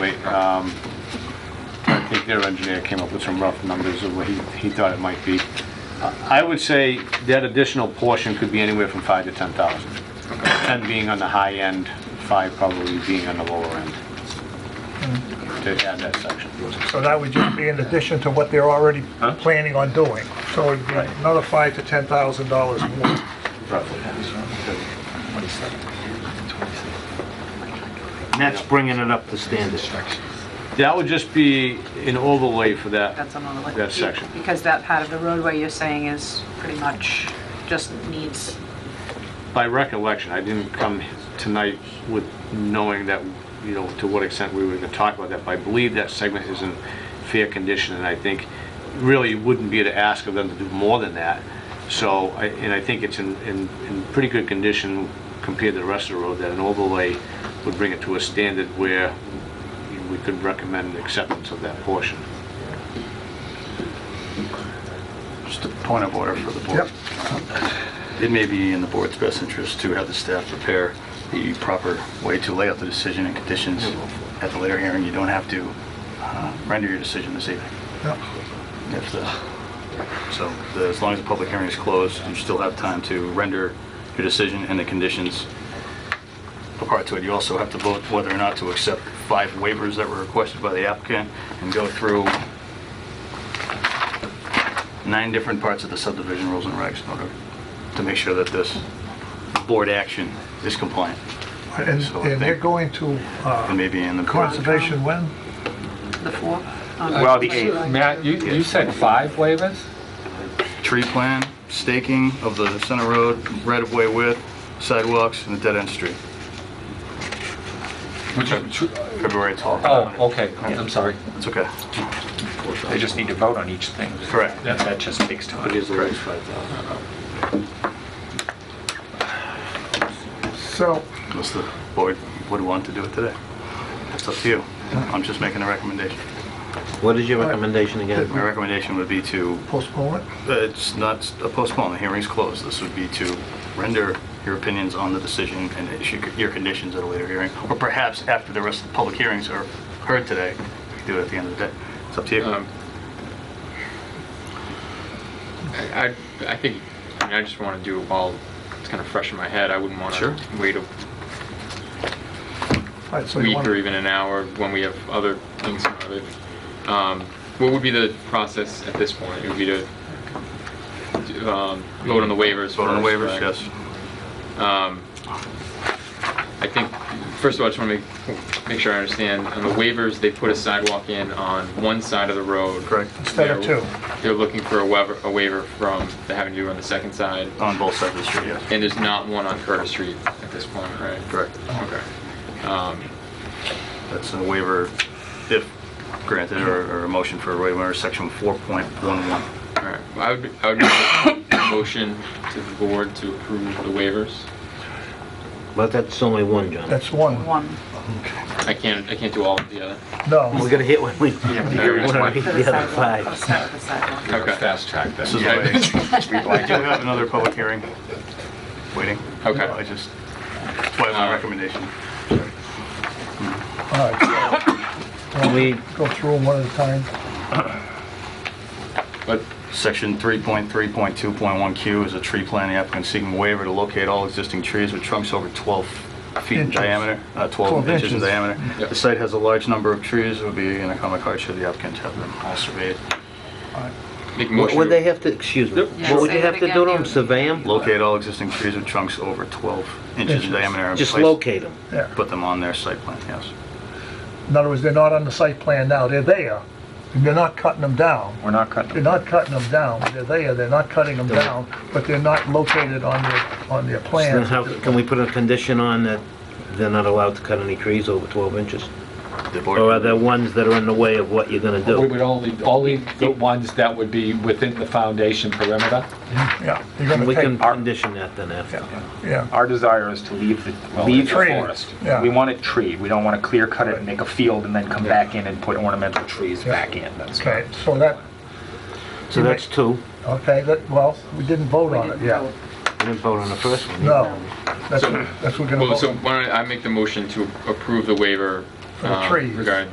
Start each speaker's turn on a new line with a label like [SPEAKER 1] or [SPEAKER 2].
[SPEAKER 1] Wait, um, I think their engineer came up with some rough numbers of what he, he thought it might be. I would say that additional portion could be anywhere from five to ten thousand. Ten being on the high end, five probably being on the lower end. To add that section.
[SPEAKER 2] So that would just be in addition to what they're already
[SPEAKER 1] Huh?
[SPEAKER 2] planning on doing. So it'd be
[SPEAKER 1] Right.
[SPEAKER 2] another five to ten thousand dollars more.
[SPEAKER 1] roughly.
[SPEAKER 3] And that's bringing it up to standard.
[SPEAKER 1] That would just be an overlay for that.
[SPEAKER 4] That's another one.
[SPEAKER 1] That section.
[SPEAKER 4] Because that part of the roadway you're saying is pretty much just needs,
[SPEAKER 1] By recollection, I didn't come tonight with knowing that, you know, to what extent we were gonna talk about that, but I believe that segment is in fair condition, and I think really it wouldn't be to ask of them to do more than that. So, I- and I think it's in, in, in pretty good condition compared to the rest of the road, that an overlay would bring it to a standard where we could recommend acceptance of that portion.
[SPEAKER 5] Just a point of order for the board.
[SPEAKER 2] Yep.
[SPEAKER 5] It may be in the board's best interest to have the staff prepare the proper way to lay out the decision and conditions at the later hearing. You don't have to uh, render your decision this evening.
[SPEAKER 2] Yep.
[SPEAKER 5] If the- So the- as long as the public hearing is closed, you still have time to render your decision and the conditions apart to it. You also have to vote whether or not to accept five waivers that were requested by the applicant and go through nine different parts of the subdivision rules and regs in order to make sure that this board action is compliant.
[SPEAKER 2] And
[SPEAKER 5] So I
[SPEAKER 2] and they're
[SPEAKER 5] think-
[SPEAKER 2] going to
[SPEAKER 5] And
[SPEAKER 2] uh,
[SPEAKER 5] maybe in the...
[SPEAKER 2] conservation when?
[SPEAKER 4] the four. on-
[SPEAKER 3] Well, the eighth.
[SPEAKER 6] Matt, you, you said five waivers?
[SPEAKER 5] Tree plan, staking of the center road, right-of-way width, sidewalks, and the dead-end street,
[SPEAKER 6] Which is true.
[SPEAKER 5] February 12th.
[SPEAKER 6] Oh, okay, I'm sorry.
[SPEAKER 5] It's okay.
[SPEAKER 6] They just need to vote on each thing.
[SPEAKER 5] Correct.
[SPEAKER 6] That that just takes time.
[SPEAKER 1] It is the raise 5,000.
[SPEAKER 2] So,
[SPEAKER 5] Unless the board would want to do it today. It's up to you. I'm just making a recommendation.
[SPEAKER 3] What is your recommendation again?
[SPEAKER 5] My recommendation would be to
[SPEAKER 2] postpone it?
[SPEAKER 5] Uh, It's not a postpone, the hearing's closed. This would be to render your opinions on the decision and issue your conditions at a later hearing, or perhaps after the rest of the public hearings are heard today, we could do it at the end of the day. It's up to you.
[SPEAKER 7] Um, I, I I think, I mean, I just want to do it while it's kind of fresh in my head. I wouldn't want
[SPEAKER 5] Sure.
[SPEAKER 7] to wait a
[SPEAKER 2] All right, so you
[SPEAKER 7] week
[SPEAKER 2] want
[SPEAKER 7] or
[SPEAKER 2] to
[SPEAKER 7] even an hour when we have other things in front of it. Um, What would be the process at this point? It would be to um, vote on the waivers
[SPEAKER 5] Vote on the
[SPEAKER 7] first,
[SPEAKER 5] waivers,
[SPEAKER 7] right?
[SPEAKER 5] yes.
[SPEAKER 7] Um, I think, first of all, I just want to make, make sure I understand, on the waivers, they put a sidewalk in on one side of the road.
[SPEAKER 5] Correct.
[SPEAKER 2] Instead of
[SPEAKER 7] They're-
[SPEAKER 2] two.
[SPEAKER 7] They're looking for a waiver, a waiver from, the having to do it on the second side,
[SPEAKER 5] On both sides of the street, yes.
[SPEAKER 7] and there's not one on Curtis Street at this point, right?
[SPEAKER 5] Correct.
[SPEAKER 7] Okay. Um,
[SPEAKER 5] That's a waiver, if granted, or or a motion for a waiver, under section 4.11.
[SPEAKER 7] All right, Well, I would, I would make a motion to the board to approve the waivers.
[SPEAKER 3] But that's only one, John.
[SPEAKER 2] That's one.
[SPEAKER 4] One.
[SPEAKER 7] I can't, I can't do all of the other.
[SPEAKER 2] No.
[SPEAKER 3] We're gonna hit one, we, we're
[SPEAKER 7] Yeah, that's
[SPEAKER 3] gonna
[SPEAKER 7] why.
[SPEAKER 3] read
[SPEAKER 4] For the
[SPEAKER 3] the other
[SPEAKER 4] sidewalk. For the
[SPEAKER 3] five.
[SPEAKER 4] side- for the sidewalk.
[SPEAKER 7] Okay.
[SPEAKER 6] Fast
[SPEAKER 5] This
[SPEAKER 6] track this.
[SPEAKER 5] is the
[SPEAKER 7] Yeah.
[SPEAKER 5] way. I do have another public hearing waiting.
[SPEAKER 7] Okay.
[SPEAKER 5] I just, that's why my recommendation.
[SPEAKER 2] All right.
[SPEAKER 3] Can we,
[SPEAKER 2] Go through them one at a time.
[SPEAKER 7] But
[SPEAKER 5] Section 3.3.2.1Q is a tree plan, the applicant seeking waiver to locate all existing trees with trunks over 12 feet in
[SPEAKER 2] Inches.
[SPEAKER 5] diameter, uh, 12
[SPEAKER 2] 12
[SPEAKER 5] inches in
[SPEAKER 2] inches.
[SPEAKER 5] diameter.
[SPEAKER 7] Yep.
[SPEAKER 5] The site has a large number of trees, it would be an economic hardship, the applicant to have them all surveyed.
[SPEAKER 7] make
[SPEAKER 3] what
[SPEAKER 7] a motion.
[SPEAKER 3] would they have to, excuse me,
[SPEAKER 4] Yeah,
[SPEAKER 3] what would
[SPEAKER 4] say
[SPEAKER 3] you have
[SPEAKER 4] that
[SPEAKER 3] to do
[SPEAKER 4] again,
[SPEAKER 3] to them,
[SPEAKER 4] you-
[SPEAKER 3] survey them?
[SPEAKER 5] Locate all existing trees with trunks over 12 inches in
[SPEAKER 2] Inches.
[SPEAKER 5] diameter. and
[SPEAKER 3] Just
[SPEAKER 5] place-
[SPEAKER 3] locate them.
[SPEAKER 2] Yeah.
[SPEAKER 5] Put them on their site plan, yes.
[SPEAKER 2] In other words, they're not on the site plan now, they're there. And they're not cutting them down.
[SPEAKER 6] We're not cutting
[SPEAKER 2] They're not cutting them down, they're there, they're not cutting them down, but they're not located on their, on their
[SPEAKER 3] So then
[SPEAKER 2] plans.
[SPEAKER 3] how, can we put a condition on that they're not allowed to cut any trees over 12 inches?
[SPEAKER 5] The
[SPEAKER 3] Or are
[SPEAKER 5] board,
[SPEAKER 3] there ones that are in the way of what you're gonna
[SPEAKER 6] We
[SPEAKER 3] do?
[SPEAKER 6] would only, only the ones that would be within the foundation perimeter.
[SPEAKER 2] Yeah, you're gonna
[SPEAKER 3] We can
[SPEAKER 2] take,
[SPEAKER 3] condition that then after.
[SPEAKER 2] yeah,
[SPEAKER 8] Our desire is to leave the, well,
[SPEAKER 2] Leave
[SPEAKER 8] leave the
[SPEAKER 2] tree.
[SPEAKER 8] forest.
[SPEAKER 2] Yeah.
[SPEAKER 8] We want it tree. We don't want to clear cut it and make a field and then come back in and put ornamental trees back in. That's
[SPEAKER 2] okay, so that,
[SPEAKER 3] So that's two.
[SPEAKER 2] okay, that, well, we didn't vote
[SPEAKER 4] We
[SPEAKER 2] on it
[SPEAKER 4] didn't
[SPEAKER 2] yet.
[SPEAKER 4] vote.
[SPEAKER 3] We didn't vote on the first one.
[SPEAKER 2] No, that's, that's what we're gonna
[SPEAKER 7] Well,
[SPEAKER 2] vote
[SPEAKER 7] so
[SPEAKER 2] on.
[SPEAKER 7] why don't I make the motion to approve the waiver.
[SPEAKER 2] For the
[SPEAKER 7] um,
[SPEAKER 2] trees.
[SPEAKER 7] Regarding